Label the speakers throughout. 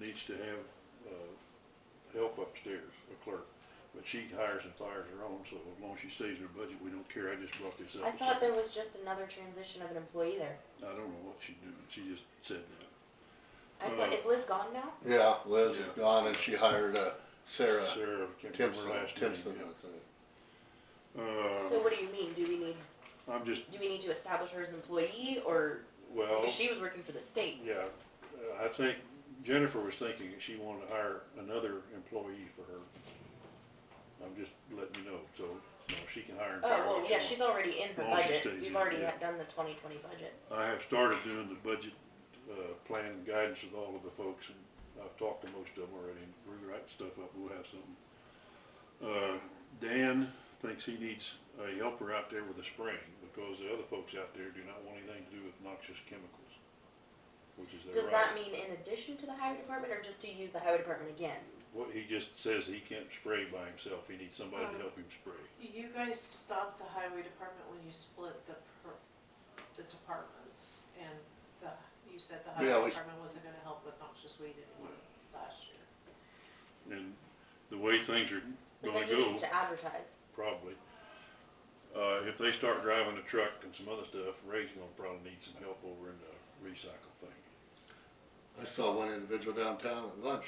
Speaker 1: needs to have, uh, help upstairs, a clerk. But she hires and fires her own, so as long as she stays in her budget, we don't care. I just brought this up.
Speaker 2: I thought there was just another transition of an employee there.
Speaker 1: I don't know what she's doing. She just said that.
Speaker 2: I thought,
Speaker 1: Uh,
Speaker 2: is Liz gone now?
Speaker 3: Yeah, Liz
Speaker 1: Yeah.
Speaker 3: is gone and she hired uh, Sarah
Speaker 1: Sarah, can't remember
Speaker 3: Timpson,
Speaker 1: her last name.
Speaker 3: Timpson,
Speaker 1: yeah.
Speaker 3: I think.
Speaker 2: So
Speaker 1: Uh,
Speaker 2: what do you mean? Do we need,
Speaker 1: I'm just,
Speaker 2: do we need to establish her as an employee or,
Speaker 1: well,
Speaker 2: because she was working for the state?
Speaker 1: yeah, uh, I think Jennifer was thinking that she wanted to hire another employee for her. I'm just letting you know, so, you know, she can hire and
Speaker 2: Oh,
Speaker 1: fire.
Speaker 2: well,
Speaker 1: what she
Speaker 2: yeah,
Speaker 1: wants.
Speaker 2: she's already in her
Speaker 1: Well, she
Speaker 2: budget.
Speaker 1: stays
Speaker 2: We've
Speaker 1: in,
Speaker 2: already
Speaker 1: yeah.
Speaker 2: had done the twenty twenty budget.
Speaker 1: I have started doing the budget, uh, plan and guidance with all of the folks, and I've talked to most of them already, and we're writing stuff up, we'll have something. Uh, Dan thinks he needs a helper out there with a spraying, because the other folks out there do not want anything to do with noxious chemicals, which is
Speaker 2: Does
Speaker 1: their
Speaker 2: that
Speaker 1: right.
Speaker 2: mean in addition to the highway department or just to use the highway department again?
Speaker 1: What, he just says he can't spray by himself, he needs somebody to
Speaker 4: Um,
Speaker 1: help him spray.
Speaker 4: You guys stopped the highway department when you split the, per- the departments, and the, you said the
Speaker 3: Yeah,
Speaker 4: highway
Speaker 3: we-
Speaker 4: department wasn't gonna help with noxious weed anymore last year.
Speaker 1: And the way things are
Speaker 2: But
Speaker 1: gonna
Speaker 2: then he
Speaker 1: go,
Speaker 2: needs to advertise.
Speaker 1: probably. Uh, if they start driving a truck and some other stuff, Ray's gonna probably need some help over in the recycle thing.
Speaker 3: I saw one individual downtown at lunch,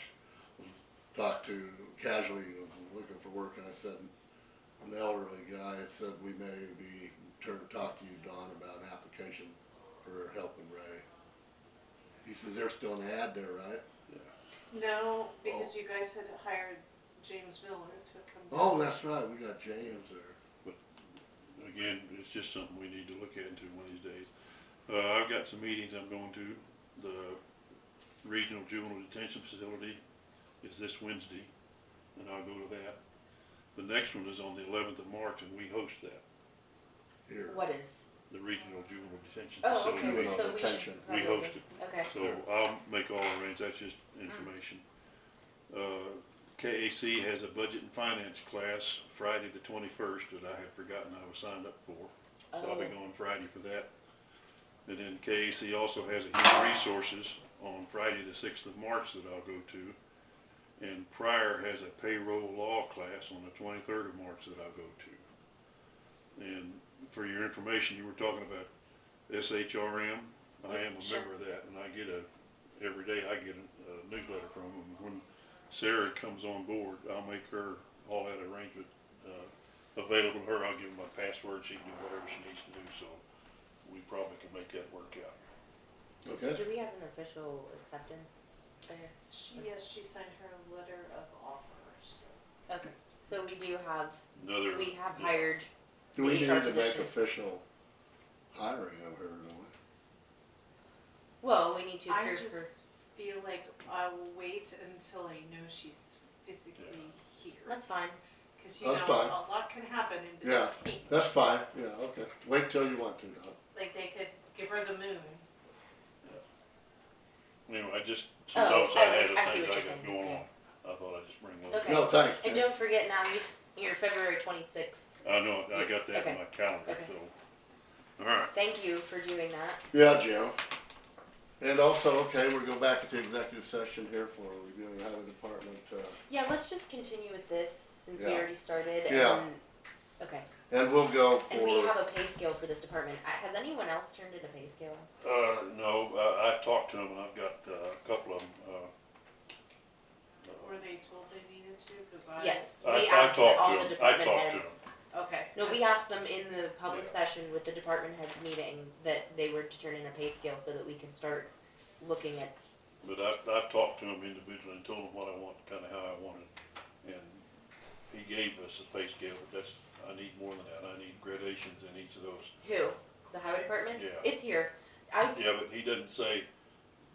Speaker 3: talked to casually, was looking for work, and I said, an elderly guy, I said, we may be, turn, talk to you, Don, about an application for helping Ray. He says, there's still an ad there, right? Oh.
Speaker 4: No, because you guys had hired James Miller to come.
Speaker 3: Oh,
Speaker 4: down.
Speaker 3: that's right, we got James there.
Speaker 1: Again, it's just something we need to look into one of these days. Uh, I've got some meetings I'm going to, the regional juvenile detention facility is this Wednesday, and I'll go to that. The next one is on the eleventh of March, and we host that,
Speaker 3: Here,
Speaker 2: What is?
Speaker 1: the regional juvenile detention
Speaker 2: Oh,
Speaker 1: facility.
Speaker 2: okay,
Speaker 3: Juvenile
Speaker 2: so we
Speaker 3: detention.
Speaker 2: should.
Speaker 1: We
Speaker 2: probably-
Speaker 1: host it.
Speaker 2: Okay.
Speaker 1: So I'll make all arrangements, that's just information. Uh, KAC has a budget and finance class Friday the twenty-first that I had forgotten I was signed up for. So I'll be
Speaker 2: Oh.
Speaker 1: going Friday for that. And then KAC also has a human resources on Friday the sixth of March that I'll go to. And Pryor has a payroll law class on the twenty-third of March that I'll go to. And for your information, you were talking about SHRM. I am a
Speaker 2: Sure.
Speaker 1: member of that and I get a, every day I get a a newsletter from them. When Sarah comes on board, I'll make her all that arrangement, uh, available to her. I'll give her my password. She can do whatever she needs to do, so we probably can make that work out.
Speaker 3: okay?
Speaker 2: Do we have an official acceptance there?
Speaker 4: She, yes, she signed her letter of offer, so.
Speaker 2: Okay, so we do have,
Speaker 1: Another.
Speaker 2: we have
Speaker 1: yeah.
Speaker 2: hired,
Speaker 3: Do we
Speaker 2: We
Speaker 3: need
Speaker 2: need our
Speaker 3: to make
Speaker 2: position.
Speaker 3: official hiring of her, don't we?
Speaker 2: well, we need to
Speaker 4: I
Speaker 2: approve for.
Speaker 4: just feel like I will wait until I know she's physically here,
Speaker 2: That's fine.
Speaker 4: cause you know,
Speaker 3: That's fine.
Speaker 4: a lot can happen in
Speaker 3: Yeah.
Speaker 4: between.
Speaker 3: That's fine, yeah, okay. Wait till you want to, Don.
Speaker 4: Like they could give her the moon.
Speaker 1: Anyway, I just, some
Speaker 2: Oh,
Speaker 1: notes I
Speaker 2: I see-
Speaker 1: had of
Speaker 2: I see
Speaker 1: things I
Speaker 2: what you're
Speaker 1: got
Speaker 2: saying,
Speaker 1: going on.
Speaker 2: okay.
Speaker 1: I thought I'd just bring those.
Speaker 2: Okay.
Speaker 3: No, thanks,
Speaker 2: And
Speaker 3: Jen.
Speaker 2: don't forget now, you, s- you're February twenty-sixth.
Speaker 1: I know, I got that in
Speaker 2: Okay.
Speaker 1: my calendar,
Speaker 2: Okay.
Speaker 1: so. All right,
Speaker 2: Thank you for doing that.
Speaker 3: Yeah, Jim. And also, okay, we'll go back into executive session here for reviewing highway department, uh,
Speaker 2: Yeah, let's just continue with this since we
Speaker 3: Yeah.
Speaker 2: already started
Speaker 3: Yeah.
Speaker 2: and, okay.
Speaker 3: and we'll go
Speaker 2: And we have
Speaker 3: for,
Speaker 2: a pay scale for this department. Uh, Has anyone else turned in a pay scale?
Speaker 1: uh, no, I, I've talked to them, and I've got, uh, a couple of them, uh. uh,
Speaker 4: Were they told they needed to? Cause I.
Speaker 2: Yes,
Speaker 1: I-
Speaker 2: we
Speaker 1: I
Speaker 2: asked the-
Speaker 1: talked to
Speaker 2: all the
Speaker 1: him. I
Speaker 2: department
Speaker 1: talked to
Speaker 2: heads.
Speaker 1: him.
Speaker 4: Okay.
Speaker 2: No, we
Speaker 4: yes.
Speaker 2: asked them in the public
Speaker 1: Yeah.
Speaker 2: session with the department heads meeting that they were to turn in a pay scale so that we can start looking at,
Speaker 1: But I've, I've talked to him individually and told him what I want, kinda how I want it, and he gave us a pay scale, but that's, I need more than that, I need gradations in each of those.
Speaker 2: who? The highway department?
Speaker 1: Yeah.
Speaker 2: It's here. I,
Speaker 1: Yeah, but he doesn't say,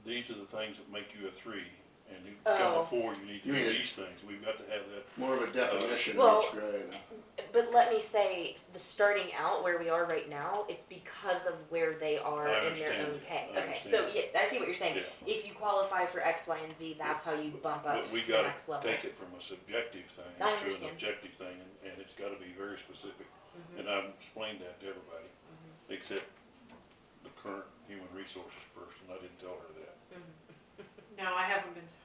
Speaker 1: these are the things that make you a three, and you become
Speaker 2: Oh.
Speaker 1: a four, you need to
Speaker 3: You mean
Speaker 1: do
Speaker 3: it-
Speaker 1: these things, we've got to have that
Speaker 3: more of a definition of
Speaker 2: Well-
Speaker 3: each grade.
Speaker 2: But let me say, the starting out where we are right now, it's because of where they are
Speaker 1: I
Speaker 2: in their
Speaker 1: understand.
Speaker 2: own pay.
Speaker 1: I
Speaker 2: Okay, so
Speaker 1: understand.
Speaker 2: yeah, I see what you're saying.
Speaker 1: Yeah.
Speaker 2: If you qualify for X, Y, and Z, that's how you bump up
Speaker 1: But we
Speaker 2: to the
Speaker 1: gotta
Speaker 2: next level.
Speaker 1: take it from a subjective thing
Speaker 2: I
Speaker 1: to an
Speaker 2: understand.
Speaker 1: objective thing, and, and it's gotta be very specific.
Speaker 2: Mhm.
Speaker 1: And I've explained that to everybody,
Speaker 2: Mm-hmm.
Speaker 1: except the current human resources person, I didn't tell her that.
Speaker 4: No, I haven't been